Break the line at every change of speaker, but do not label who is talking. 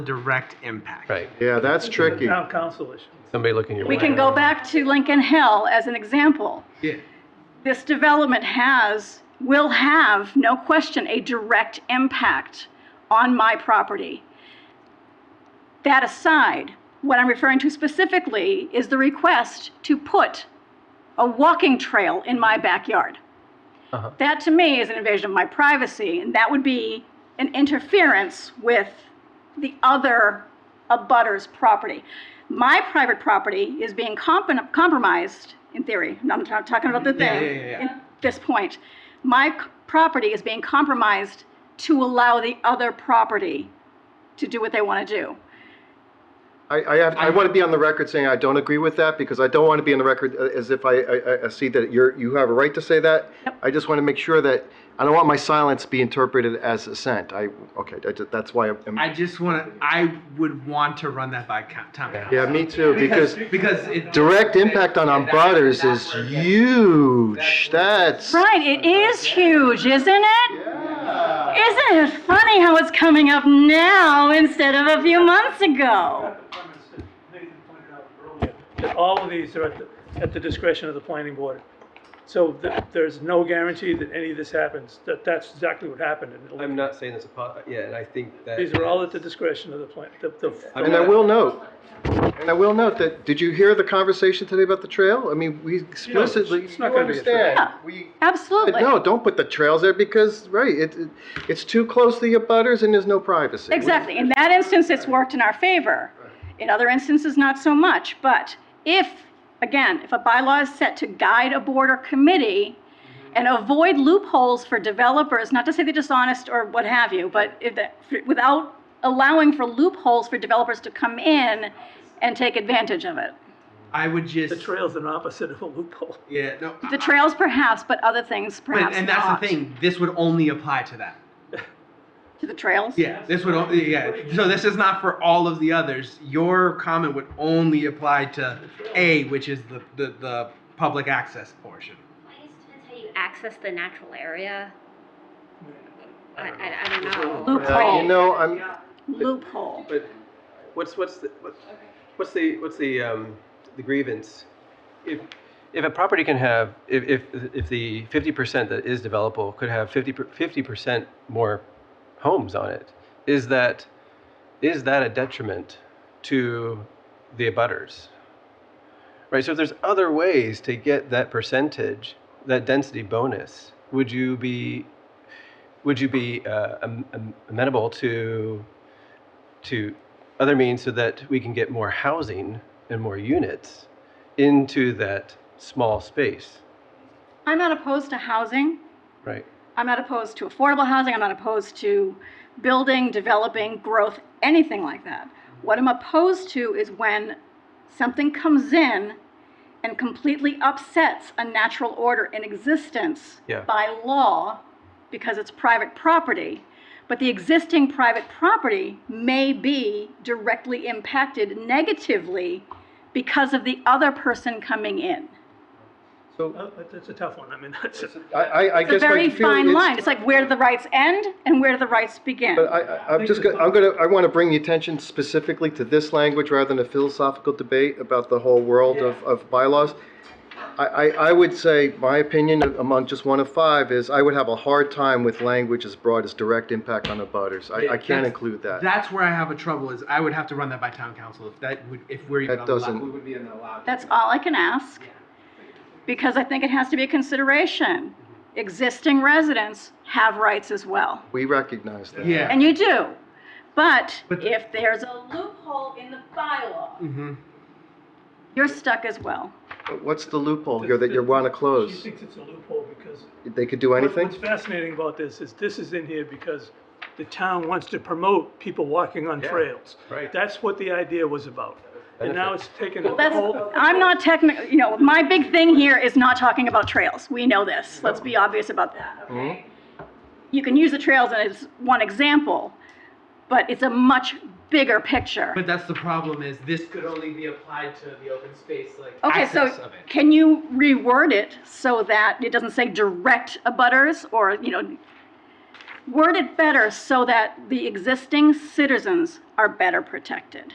direct impact.
Right.
Yeah, that's tricky.
Town council issue.
Somebody looking your way.
We can go back to Lincoln Hill as an example.
Yeah.
This development has, will have, no question, a direct impact on my property. That aside, what I'm referring to specifically is the request to put a walking trail in my backyard.
Uh-huh.
That to me is an invasion of my privacy, and that would be an interference with the other abutter's property. My private property is being comp- compromised, in theory, I'm not I'm talking about the
Yeah,
thing.
yeah, yeah, yeah.
At this point, my c- property is being compromised to allow the other property to do what they want to do.
I, I have, I want to be on the record saying I don't agree with that because I don't want to be on the record uh, as if I, I, I- I see that you're, you have a right to say that. I just want to make sure that, I don't want my silence be interpreted as assent. I, okay, that- that's why I'm,
I just want to, I would want to run that by co- town council.
yeah, me too, because
Because it.
direct impact on our butters is huge. That's,
Right, it is huge, isn't it? Isn't it funny how it's coming up now instead of a few months ago?
Nathan pointed out earlier that All of these are at the, at the discretion of the planning board. So th- there's no guarantee that any of this happens, that that's exactly what happened. in
I'm
Olympic.
not saying this apart, yeah, and I think that.
These are all at the discretion of the plan, the, the.
I mean,
and I will note, and I will note that, did you hear the conversation today about the trail? I mean, we explicitly,
it's
you
not gonna be a trail.
understand,
Yeah.
we But
Absolutely.
No, don't put the trails there because, right, it, it- it's too close to your butters and there's no privacy.
Exactly. In that instance, it's worked in our favor. In other instances, not so much. But if, again, if a bylaw is set to guide a board or committee
Mm-hmm.
and avoid loopholes for developers, not to say they're dishonest or what have you, but if the, without allowing for loopholes for developers to come in and take advantage of it.
I would just.
The trail's an opposite of a loophole.
Yeah, no.
The trails perhaps, but other things
But,
perhaps
and that's
not.
the thing, this would only apply to that.
To the trails?
Yeah, this would, only yeah, so this is not for all of the others. Your comment would only apply to A, which is the, the, the public access portion.
I guess depends how you access the natural area. I,
I don't
I, I don't know.
Uh, You
Loophole,
know, I'm,
loophole.
But what's, what's the, what- what's the, what's the, um, the grievance? If, if a property can have, if, if, if the fifty percent that is developable could have fifty percent more homes on it, is that, is that a detriment to the abutters? Right, so if there's other ways to get that percentage, that density bonus, would you be, would you be uh, am- am- amenable to to other means so that we can get more housing and more units into that small space,
I'm not opposed to housing.
right?
I'm not opposed to affordable housing. I'm not opposed to building, developing, growth, anything like that. What I'm opposed to is when something comes in and completely upsets a natural order in existence
Yeah.
by law because it's private property. But the existing private property may be directly impacted negatively because of the other person coming in.
so,
Uh, but That's a tough one, I mean, that's,
I, I, I
It's a
guess I
very
feel
fine line.
it's.
It's like where do the rights end and where do the rights begin?
But I, I, I'm just, gonna- I'm gonna, I want to bring the attention specifically to this language rather than a philosophical debate about the whole world of, of bylaws. I, I, I would say, my opinion among just one of five is I would have a hard time with language as broad as direct impact on the butters. I, I can't
That's-
include that.
That's where I have a trouble is I would have to run that by town council if that would, if we're even
That
allowed.
doesn't-
we would be allowed.
That's all I can ask. Because I think it has to be a consideration. Existing residents have rights as well.
We recognize that.
Yeah.
And you do. But
But-
if there's a loophole in the bylaw,
Mm-hmm.
you're stuck as well.
But What's the loophole here that you want to
she
close?
thinks it's a loophole because
They could do
What-
anything?
What's fascinating about this is this is in here because the town wants to promote people walking on trails.
right.
That's what the idea was about. And now it's taken a
That's,
Oh.
whole.
I'm not technical, you know, my big thing here is not talking about trails. We know this. Let's be obvious about that, okay?
Oh.
You can use the trails as one example, but it's a much bigger picture.
But that's the problem is this could only be applied to the open space like
Okay,
access
so
of it.
can you reword it so that it doesn't say direct abutters or, you know, word it better so that the existing citizens are better protected.